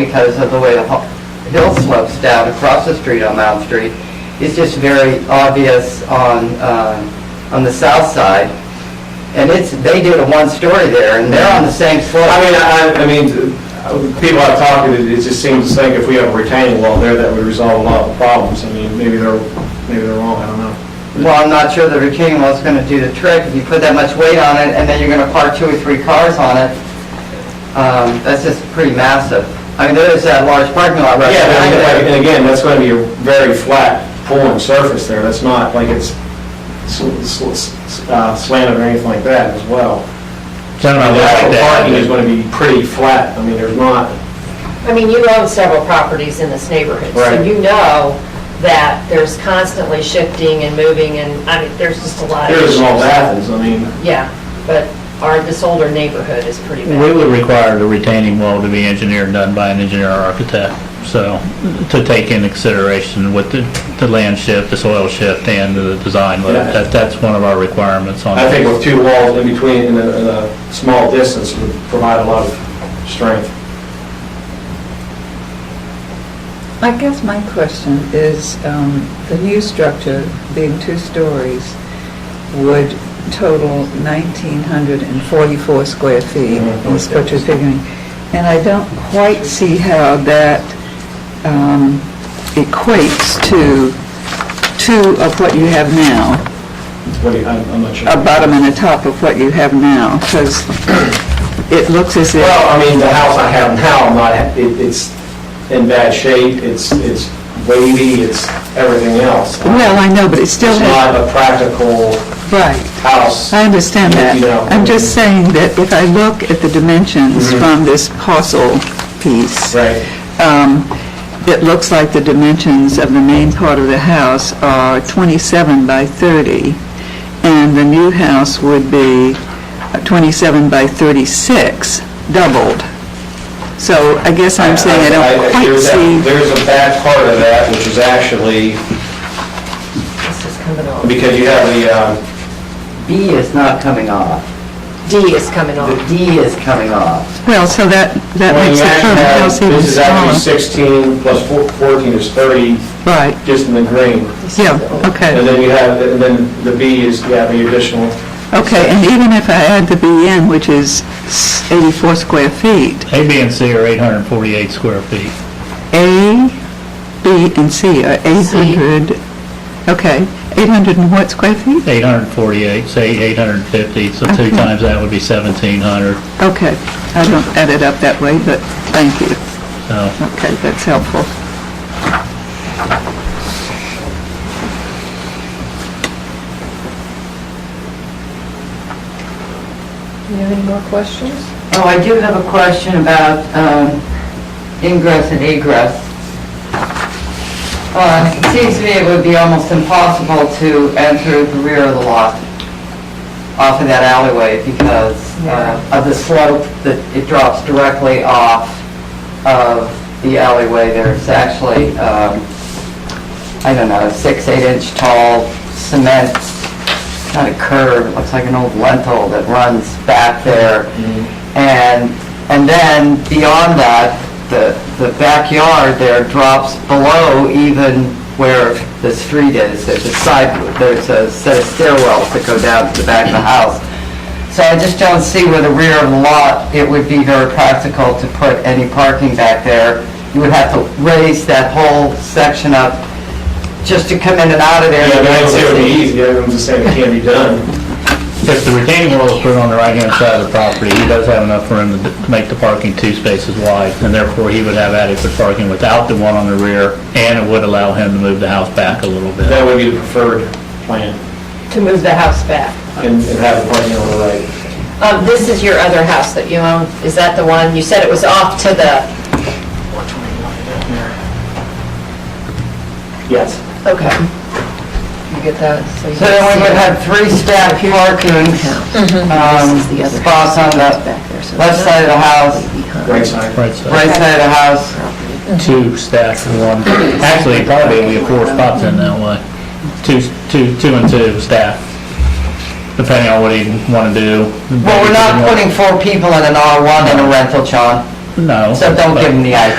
because of the way the hu- hill slopes down across the street on Mount Street. It's just very obvious on, um, on the south side. And it's, they did a one-story there, and they're on the same slope. I mean, I, I mean, uh, people I've talked to, it just seems to think if we have a retaining wall there, that would resolve a lot of problems. I mean, maybe they're, maybe they're wrong, I don't know. Well, I'm not sure the retaining wall's going to do the trick. If you put that much weight on it, and then you're going to park two or three cars on it, um, that's just pretty massive. I mean, there is that large parking lot right Yeah, behind and there. again- and again, that's going to be a very flat pulling surface there. That's not like it's sl- sl- s- uh, slanted or anything like that as well. Sound The like actual that. parking is going to be pretty flat. I mean, there's not, I mean, you own several properties in this neighborhood, so Right. you know that there's constantly shifting and moving, and, I mean, there's just a lot of there issues. isn't all Athens, I mean. Yeah, but our, this older neighborhood is pretty We bad. would require the retaining wall to be engineered, done by an engineer or architect, so, to take into consideration with the, the land shift, the soil shift, and the design, Yeah. that, that's one of our requirements on. I think with two walls in between and a, and a small distance would provide a lot of strength. I guess my question is, um, the new structure, being two stories, would total 1,944 square feet, Mm-hmm. is what you're figuring. And I don't quite see how that um, equates to two of what you have now, What do you, I'm I'm not sure. a bottom and a top of what you have now, because it looks as if... Well, uh, I mean, the house I have now, I'm not, it, it's in bad shape, it's, it's wavy, it's everything else. Well, I know, but it still It's has... not a practical Right. house. I understand that. You know. I'm just saying that if I look at the dimensions from this parcel piece, Mm-hmm. Right. um, it looks like the dimensions of the main part of the house are 27 by 30, and the new house would be uh, 27 by 36, doubled. So I guess I'm saying I don't quite there's that- see, There's a bad part of that, which is actually, This is coming off. because you have the, um, B is not coming off. D is coming The off. D is coming off. well, so that, that when makes you the actually current have, house even this is actually 16 smaller. plus four- 14 is 30, Right, just in the green. yeah, okay. And then you have, and then the B is, you have the additional, Okay, and even if I add the BN, which is s- 84 square feet, A, B, and C are eight hundred and forty-eight square feet. A, B, and C are 800, okay, 800 and what square feet? 848, say 850, so two Okay. times that would be 1,700, Okay, I don't add it up that way, but thank you. so. Okay, that's helpful. You have any more questions? Oh, I do have a question about um, ingress and egress. Uh, It seems to me it would be almost impossible to enter the rear of the lot off of that alleyway because uh, of the slope that it drops directly off of the alleyway. There's actually, um, I don't know, six, eight inch tall cement, kind of curve, it looks like an old lentil that runs back there. And, and then beyond that, the, the backyard there drops below even where the street is. There's a side, there's a set of stairwells that go down to the back of the house. So I just don't see where the rear of the lot, it would be very practical to put any parking back there. You would have to raise that whole section up just to come in and out of there. yeah, but I'd say it would be easy, I'm just saying it can be done. If the retaining wall is put on the right-hand side of the property, he does have enough room to d- make the parking two spaces wide, and therefore he would have adequate parking without the one on the rear, and it would allow him to move the house back a little bit. That would be the preferred plan, To move the house back. and and have the parking on the right. Um, this is your other house that you own, is that the one, you said it was off to the, Yes. okay. You get that? you So then we would have three staff parking um, spots on the left side of the house, Right side. Right side, right side of the house, two stacked in one, actually, probably we have four spots in that way, two, two, two and two stacked, depending on what he want to do. Well, we're not putting four people in an R1 in a rental, John, No. so don't give them the idea.